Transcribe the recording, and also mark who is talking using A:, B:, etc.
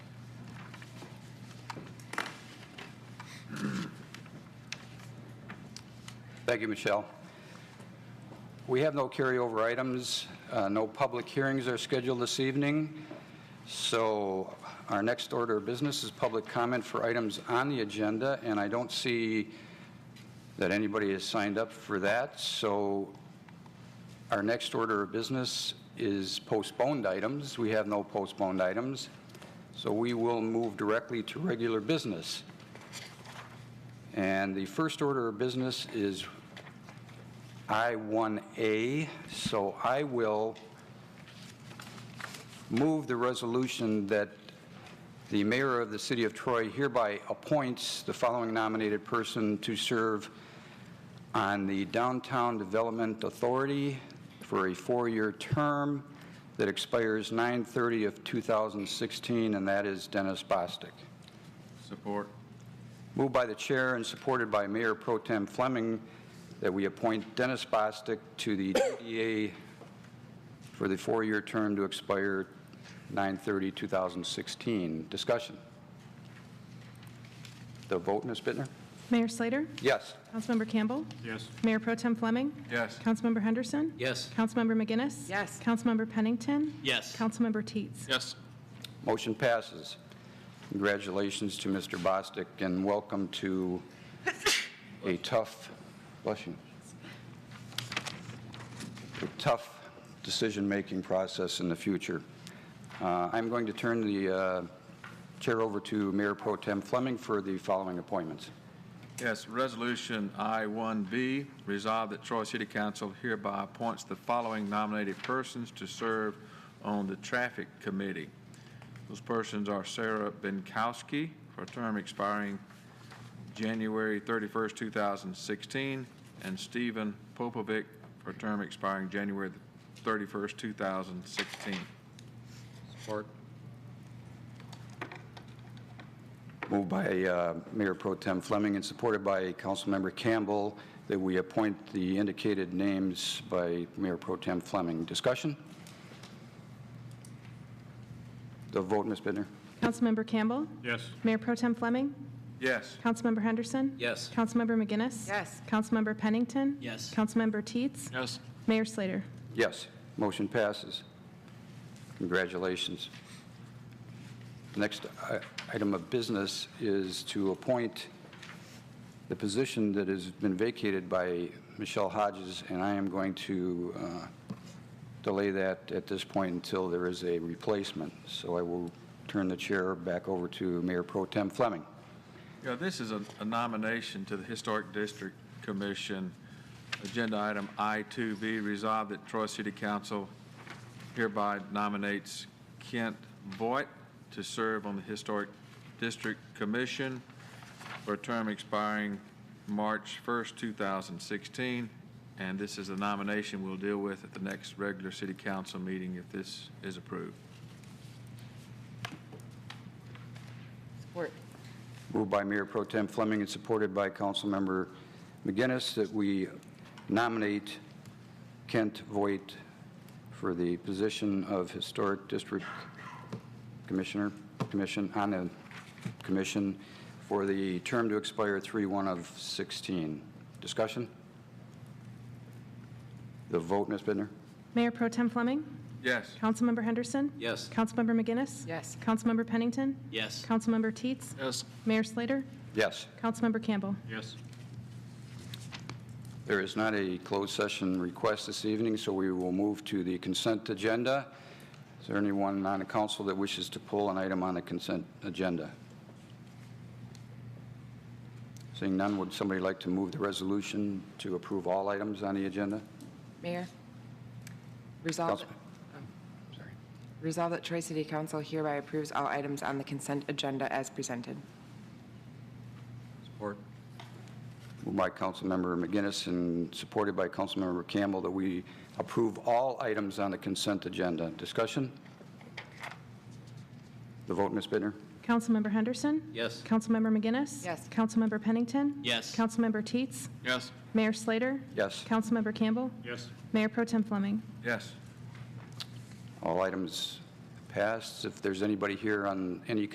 A: Thank you, Michelle. We have no carryover items. Uh, No public hearings are scheduled this evening. So our next order of business is public comment for items on the agenda, and I don't see that anybody has signed up for that. So our next order of business is postponed items. We have no postponed items. So we will move directly to regular business. And the first order of business is I-1A, so I will move the resolution that the mayor of the city of Troy hereby appoints the following nominated person to serve on the Downtown Development Authority for a four-year term that expires 9/30 of 2016, and that is Dennis Bostic.
B: Support.
A: Moved by the chair and supported by Mayor Pro Tem Fleming that we appoint Dennis Bostic to the DDA for the four-year term to expire 9/30/2016. Discussion. The vote, Ms. Bittner?
C: Mayor Slater?
A: Yes.
C: Councilmember Campbell?
B: Yes.
C: Mayor Pro Tem Fleming?
B: Yes.
C: Councilmember Henderson?
D: Yes.
C: Councilmember McGinnis?
E: Yes.
C: Councilmember Pennington?
D: Yes.
C: Councilmember Teetz?
B: Yes.
A: Motion passes. Congratulations to Mr. Bostic, and welcome to a tough, bless you, a tough decision-making process in the future. Uh, I'm going to turn the uh, chair over to Mayor Pro Tem Fleming for the following appointments.
B: Yes, Resolution I-1B, resolve that Troy City Council hereby appoints the following nominated persons to serve on the Traffic Committee. Those persons are Sarah Binkowski for a term expiring January 31st, 2016, and Stephen Popovic for a term expiring January 31st, 2016.
A: Support. Moved by uh, Mayor Pro Tem Fleming and supported by Councilmember Campbell that we appoint the indicated names by Mayor Pro Tem Fleming. Discussion? The vote, Ms. Bittner?
C: Councilmember Campbell?
B: Yes.
C: Mayor Pro Tem Fleming?
B: Yes.
C: Councilmember Henderson?
D: Yes.
C: Councilmember McGinnis?
E: Yes.
C: Councilmember Pennington?
D: Yes.
C: Councilmember Teetz?
B: Yes.
C: Mayor Slater?
A: Yes, motion passes. Congratulations. Next i- item of business is to appoint the position that has been vacated by Michelle Hodges, and I am going to uh, delay that at this point until there is a replacement. So I will turn the chair back over to Mayor Pro Tem Fleming.
B: Yeah, this is a a nomination to the Historic District Commission. Agenda item I-2B, resolved that Troy City Council hereby nominates Kent Voigt to serve on the Historic District Commission for a term expiring March 1st, 2016. And this is a nomination we'll deal with at the next regular city council meeting if this is approved.
E: Support.
A: Moved by Mayor Pro Tem Fleming and supported by Councilmember McGinnis that we nominate Kent Voigt for the position of Historic District Commissioner, Commission, on the Commission, for the term to expire 3/1 of 16. Discussion? The vote, Ms. Bittner?
C: Mayor Pro Tem Fleming?
B: Yes.
C: Councilmember Henderson?
D: Yes.
C: Councilmember McGinnis?
E: Yes.
C: Councilmember Pennington?
D: Yes.
C: Councilmember Teetz?
B: Yes.
C: Mayor Slater?
A: Yes.
C: Councilmember Campbell?
B: Yes.
A: There is not a closed session request this evening, so we will move to the consent agenda. Is there anyone on the council that wishes to pull an item on the consent agenda? Seeing none, would somebody like to move the resolution to approve all items on the agenda?
E: Mayor? Resolve,
A: Councilman. Sorry.
E: resolve that Troy City Council hereby approves all items on the consent agenda as presented.
D: Support.
A: Moved by Councilmember McGinnis and supported by Councilmember Campbell that we approve all items on the consent agenda. Discussion? The vote, Ms. Bittner?
C: Councilmember Henderson?
D: Yes.
C: Councilmember McGinnis?
E: Yes.
C: Councilmember Pennington?
D: Yes.
C: Councilmember Teets?
B: Yes.
C: Mayor Slater?
A: Yes.
C: Councilmember Campbell?
B: Yes.
C: Mayor Pro Tem Fleming?
B: Yes.
A: All items passed. If there's anybody here on any